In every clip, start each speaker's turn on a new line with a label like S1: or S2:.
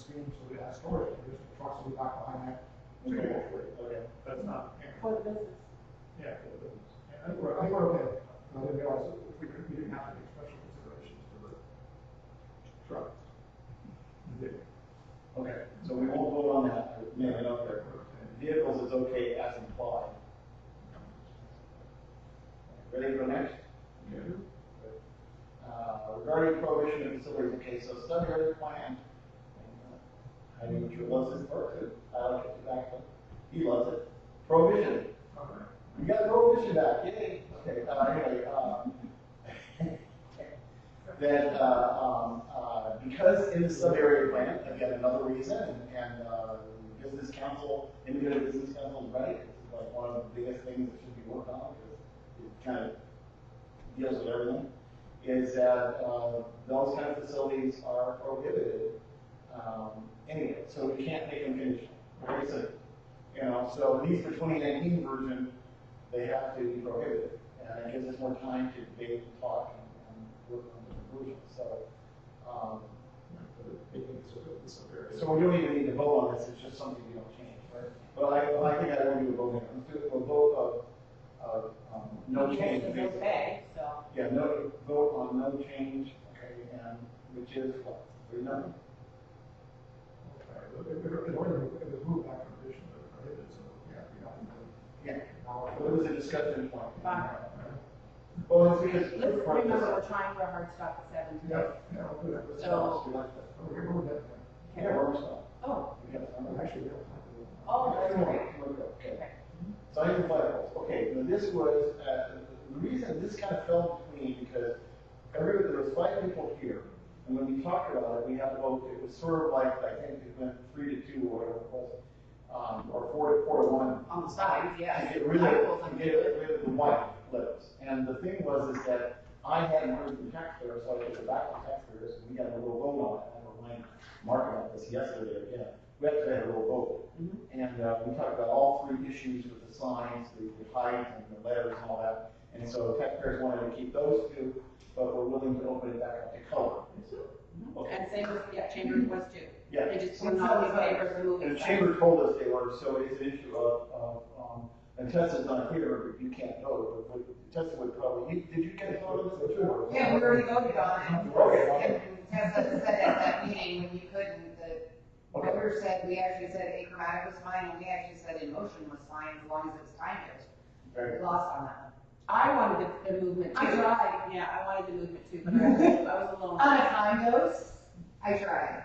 S1: sixteen, so we have storage, there's the trucks will be back behind that.
S2: So you're good for it. Okay, that's not,
S3: for the business.
S2: yeah, for the business. Yeah, I
S1: I think
S2: think
S1: we're,
S2: we're-
S1: I think we're okay, I didn't realize that we could, we didn't have to make special considerations for the truck.
S2: Okay.
S4: So we won't vote on that, but leave it up there.
S2: Okay.
S4: Vehicles is okay as implied. Ready for next? Uh, regarding prohibition of facilities, okay, so study area plan. Uh, I mean, Drew loves it first, I like it back, he loves it. Prohibition,
S2: Okay.
S4: we got prohibition back, yay, okay, uh, anyway, um. That, uh, um, uh, because in the sub-area plan, again, another reason, and, and, uh, business council, individual business council, right? It's like one of the biggest things that should be worked on, because it kind of deals with everything, is that, uh, those kind of facilities are prohibited. Um, anyway, so we can't make them conditional, very simple. You know, so at least for twenty nineteen version, they have to be prohibited. And it gives us more time to debate and talk and, and work on the conclusion, so. Um, so we don't even need to vote on this, it's just something we don't change, right? But I, well, I think I won't do a vote, on it. let's do a vote of, of, um, no change.
S3: It's
S4: basically.
S3: okay, so.
S4: Yeah, no, vote on no change, okay, and which is what, three nothing?
S1: It was moved back from addition, but it prohibited, so, yeah, we got
S4: Yeah,
S1: it.
S4: so it was a discussion point.
S3: Fine.
S4: Well, it's because.
S3: Let's remember, we're trying for a hard stop at seven
S1: Yeah,
S3: today.
S1: yeah, I'll do that.
S3: So-
S1: We can move that,
S4: Yeah, we're still.
S3: Oh,
S4: we got some.
S1: yeah. actually, we don't
S3: oh, that's great.
S4: Okay.
S3: Okay.
S4: So I can fly holes. Okay, now this was, uh, the reason this kind of fell between, because every, there was five people here, and when we talked about it, we had to vote, it was sort of like, I think it went three to two or whatever it was, um, or four to, four to one.
S3: On the sides,
S4: To
S3: yes.
S4: get rid of,
S3: I will
S4: to
S3: undo
S4: get
S3: it.
S4: rid of the white letters. And the thing was is that I hadn't heard from taxpayers, so I took it back to taxpayers, and we got a little vote on it, and we're like, Mark about this yesterday, yeah. We actually had a little vote.
S3: Mhm.
S4: And uh, we talked about all three issues with the signs, the the height and the letters and all that. And so taxpayers wanted to keep those two, but were willing to open it back up to color. Okay.
S3: And same with, yeah, Chambers was too.
S4: Yeah.
S3: They just put all these papers and moving.
S4: And the chamber told us they were, so it's an issue of, of, um, and Tessa's not here, you can't vote, but would- Tessa would probably, you- did you get a vote on this before?
S5: Yeah, we already voted on it.
S4: Okay.
S5: Tessa said at that meeting when you couldn't, the
S4: Okay.
S5: voter said, we actually said achromatic was fine, and we actually said in motion was fine as long as it was timed.
S4: Very
S5: We
S4: good.
S5: lost on that
S3: I wanted the, the movement too.
S5: I tried.
S3: Yeah, I wanted the movement too, but I, I was a little.
S5: one. On a time dose, I tried.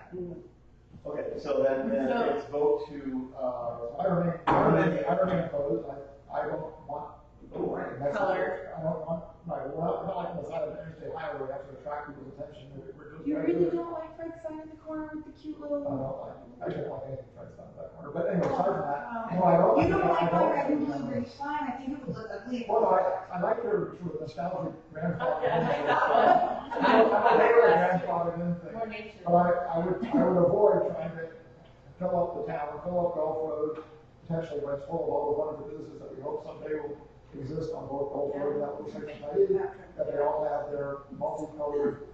S4: Okay, so then, then
S3: So-
S4: it's vote to, uh,
S1: I remain, I remain, I remain opposed, I, I don't want. That's-
S3: Color.
S1: I don't want, right, we're not, we're not like on the side of an interstate highway, that's gonna attract people's attention, we're, we're just.
S3: You
S1: trying to do
S3: really
S1: it.
S3: don't like Fred's sign in the corner with the cute
S1: I
S3: little.
S1: don't like, I don't like anything that's on that corner, but anyway, aside from that,
S3: Oh.
S1: no, I don't.
S5: You don't like
S1: I
S5: my red and blue green sign, I think it would look ugly.
S1: Well, I, I like your sort of nostalgic grandfather.
S3: Okay, I like that
S1: I don't- I don't like your grandfather and thing.
S3: More nature.
S1: But I, I would, I would avoid trying to fill up the town, fill up Gulf Road, potentially West Hall, all the wonderful businesses that we hope someday will exist on both Gulf Road and that little section of Hayden, that they all have their multicolored,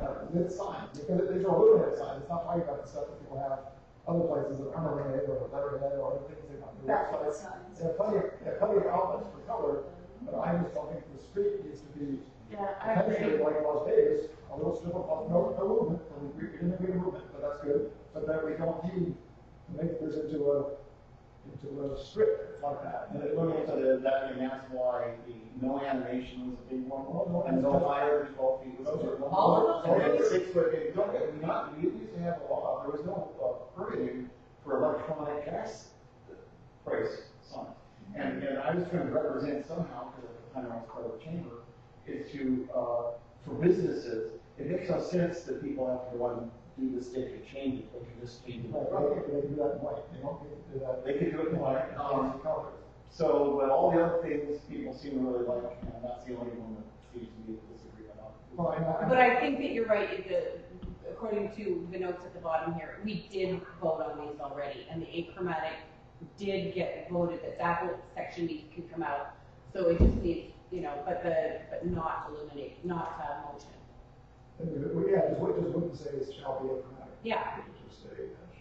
S1: uh, lit signs, because these are illuminated signs, it's not talking about the stuff that people have other places that aren't illuminated, or letterhead, or other things they want to do.
S5: Backlit
S1: There
S5: signs.
S1: are plenty, of- there are plenty of outlets for color, but I just don't think the street needs to be
S3: Yeah, I agree.
S1: potentially like Las Vegas, a little strip of, no, no movement, and we, we didn't need movement, but that's good. But that we don't need to make this into a, into a strip like that.
S4: and then looking into the, that, and that's why the no animation was a big one, and no higher than twelve feet was a big one.
S1: All of
S3: those?
S4: And it's six foot, and don't get, me wrong, we used to have a law, there was no, uh, permitting for electronic gas price signs. And, and I was trying to represent somehow, because at the time I was part of the chamber, is to, uh, for businesses, it makes no sense that people have to run, do this, they could change it, they could just change
S1: Like, I
S4: it.
S1: think they do that in white, they don't get to do that.
S4: They could do it in like, um,
S1: in colors.
S4: so, but all the other things people seem to really like, and that's the only one that seems to be a disagreement on.
S1: Well, I-
S3: But I think that you're right, it- the, according to the notes at the bottom here, we did vote on these already, and the achromatic did get voted, that that whole section needs to come out. So it just needs, you know, but the, but not eliminate, not uh, motion.
S1: And we- we- Yeah, just, we just wouldn't say it shall be a
S3: Yeah,
S1: Just say,